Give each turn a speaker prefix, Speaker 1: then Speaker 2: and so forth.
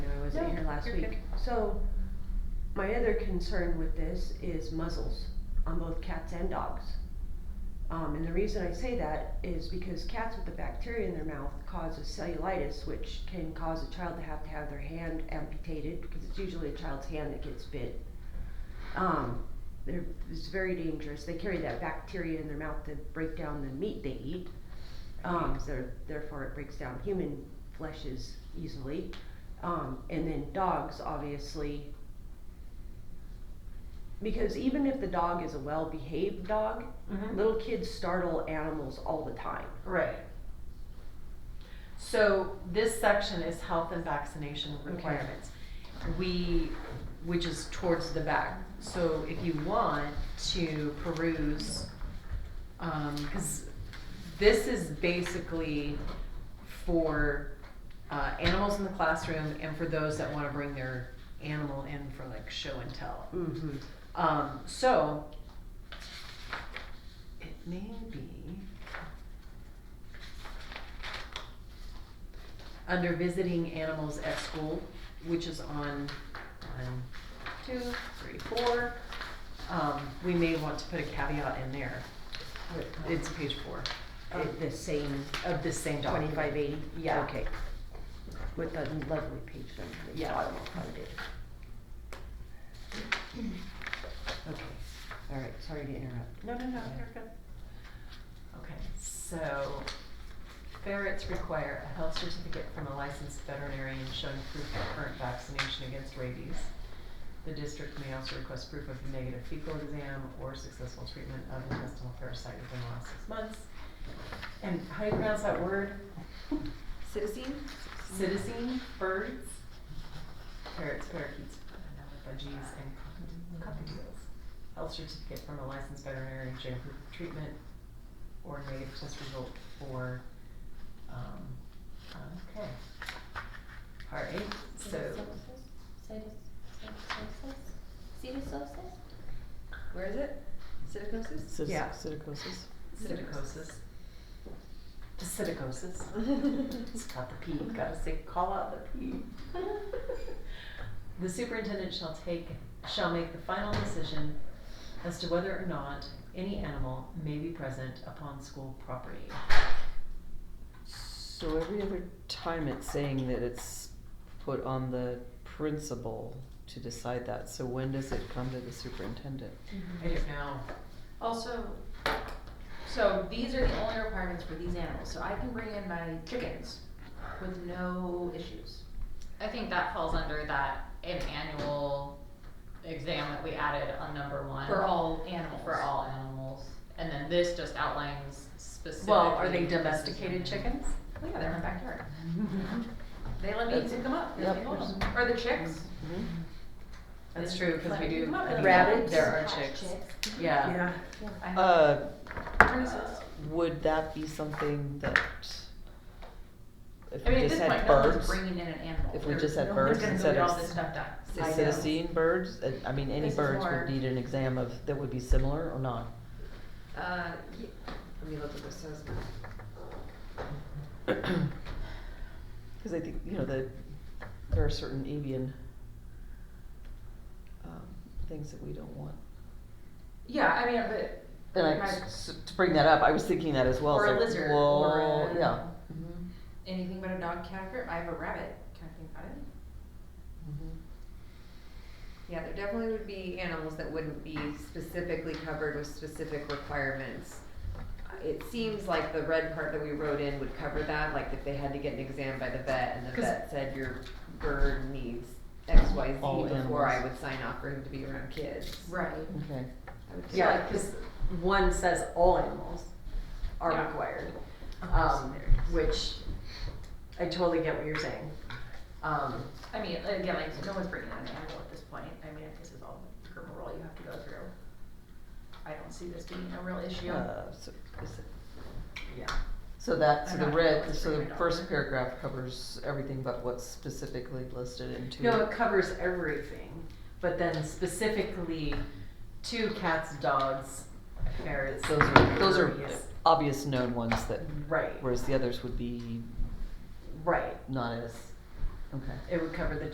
Speaker 1: wasn't
Speaker 2: No,
Speaker 1: here last
Speaker 2: you're
Speaker 1: week.
Speaker 2: good.
Speaker 1: So, my other concern with this is muzzles on both cats and dogs. Um, and the reason I say that is because cats with the bacteria in their mouth causes cellulitis, which can cause a child to have to have their hand amputated, because it's usually a child's hand that gets bit. Um, they're, it's very dangerous, they carry that bacteria in their mouth to break down the meat they eat. Um, so therefore it breaks down human fleshes easily. Um, and then dogs, obviously. Because even if the dog is a well behaved dog,
Speaker 2: Mhm.
Speaker 1: little kids startle animals all the time.
Speaker 2: Right. So this section is health and vaccination requirements. We, which is towards the back. So if you want to peruse, um, cause this is basically for, uh, animals in the classroom and for those that wanna bring their animal in for like show and tell.
Speaker 1: Mm-hmm.
Speaker 2: Um, so, it may be under visiting animals at school, which is on one, two, three, four. Um, we may want to put a caveat in there. It's page four
Speaker 1: Of the same
Speaker 2: of this same document.
Speaker 1: 2580?
Speaker 2: Yeah.
Speaker 1: Okay. With the lovely page number at the
Speaker 2: Yeah.
Speaker 1: bottom, I'll find it. Okay, all right, sorry to interrupt.
Speaker 2: No, no, no, you're good. Okay, so ferrets require a health certificate from a licensed veterinarian showing proof of current vaccination against rabies. The district may also request proof of a negative fecal exam or successful treatment of intestinal parasite within the last six months. And how do you pronounce that word?
Speaker 3: Citizen?
Speaker 2: Citizen birds? Parrots, parakeets, budgies, and cock- cockatiels. Health certificate from a licensed veterinarian showing proof of treatment or negative test result for, um, okay. All right, so,
Speaker 3: Pseudocytosis? Where is it? Pseudocytosis?
Speaker 4: Cis-
Speaker 2: Yeah.
Speaker 4: Psittacosis.
Speaker 2: psittacosis. Psittacosis. It's
Speaker 3: Pseudocytosis.
Speaker 2: got the P, gotta say, call out the P. The superintendent shall take, shall make the final decision as to whether or not any animal may be present upon school property.
Speaker 4: So every other time it's saying that it's put on the principal to decide that. So when does it come to the superintendent?
Speaker 2: I don't know.
Speaker 3: Also, so these are the only requirements for these animals, so I can bring in my chickens with no issues.
Speaker 5: I think that falls under that an annual exam that we added on number one.
Speaker 3: For all animals.
Speaker 5: For all animals. And then this just outlines specifically.
Speaker 2: Well, are they domesticated chickens?
Speaker 3: Oh yeah, they're in my backyard. They let me pick them up, they let me
Speaker 4: Yep.
Speaker 3: hold them, or the chicks.
Speaker 2: That's true, cause we
Speaker 3: Like,
Speaker 2: do.
Speaker 3: come up
Speaker 2: I
Speaker 3: with
Speaker 2: mean,
Speaker 3: a-
Speaker 1: Rabbits?
Speaker 2: There are
Speaker 3: Hatch
Speaker 2: chicks, yeah.
Speaker 3: I know.
Speaker 4: Uh,
Speaker 3: Tortoises.
Speaker 4: would that be something that if
Speaker 3: I
Speaker 4: we
Speaker 3: mean, at
Speaker 4: just
Speaker 3: this
Speaker 4: had
Speaker 3: point, no one's
Speaker 4: birds,
Speaker 3: bringing in an animal.
Speaker 4: if we
Speaker 3: There-
Speaker 4: just had
Speaker 3: no
Speaker 4: birds
Speaker 3: one's gonna go
Speaker 4: instead
Speaker 3: get
Speaker 4: of
Speaker 3: all this stuff done.
Speaker 4: the
Speaker 3: I know.
Speaker 4: citizen birds? Uh, I mean, any
Speaker 3: This is
Speaker 4: birds
Speaker 3: more-
Speaker 4: would need an exam of that would be similar or not.
Speaker 3: Uh, ye- let me look at this, says.
Speaker 4: Because I think, you know, the, there are certain avian um, things that we don't want.
Speaker 3: Yeah, I mean, but.
Speaker 4: And I,
Speaker 3: my-
Speaker 4: s- s- to bring that up, I was thinking that as well.
Speaker 3: Or
Speaker 4: it's
Speaker 3: a
Speaker 4: like,
Speaker 3: lizard,
Speaker 4: well,
Speaker 3: or a-
Speaker 4: Yeah.
Speaker 3: Anything but a dog can occur, I have a rabbit, can I think about it?
Speaker 4: Mm-hmm.
Speaker 6: Yeah, there definitely would be animals that wouldn't be specifically covered with specific requirements. Uh, It seems like the red part that we wrote in would cover that, like if they had to get an exam by the vet and the
Speaker 2: 'Cause-
Speaker 6: vet said your bird needs X, Y, Z
Speaker 4: All
Speaker 6: before I
Speaker 4: animals.
Speaker 6: would sign off for him to be around kids.
Speaker 3: Right.
Speaker 4: Mhm. Okay.
Speaker 6: I would think.
Speaker 2: Yeah, cause one says all animals are
Speaker 3: Yeah.
Speaker 2: required,
Speaker 3: Um,
Speaker 2: um, which I totally get what you're saying. Um,
Speaker 3: I mean, again, like, no one's bringing in an animal at this point, I mean, if this is all the rigmarole you have to go through. I don't see this being a real issue.
Speaker 4: Uh, so, is it,
Speaker 2: yeah.
Speaker 4: so that so
Speaker 3: I'm
Speaker 4: the
Speaker 3: not
Speaker 4: red
Speaker 3: going
Speaker 4: so
Speaker 3: through
Speaker 4: the
Speaker 3: it all.
Speaker 4: first paragraph covers everything but what's specifically listed in two.
Speaker 2: No, it covers everything, but then specifically two cats, dogs, ferrets.
Speaker 4: those are those are
Speaker 2: birds.
Speaker 4: obvious known ones that
Speaker 2: Right,
Speaker 4: whereas the others would be
Speaker 2: right.
Speaker 4: not as okay.
Speaker 2: It would cover the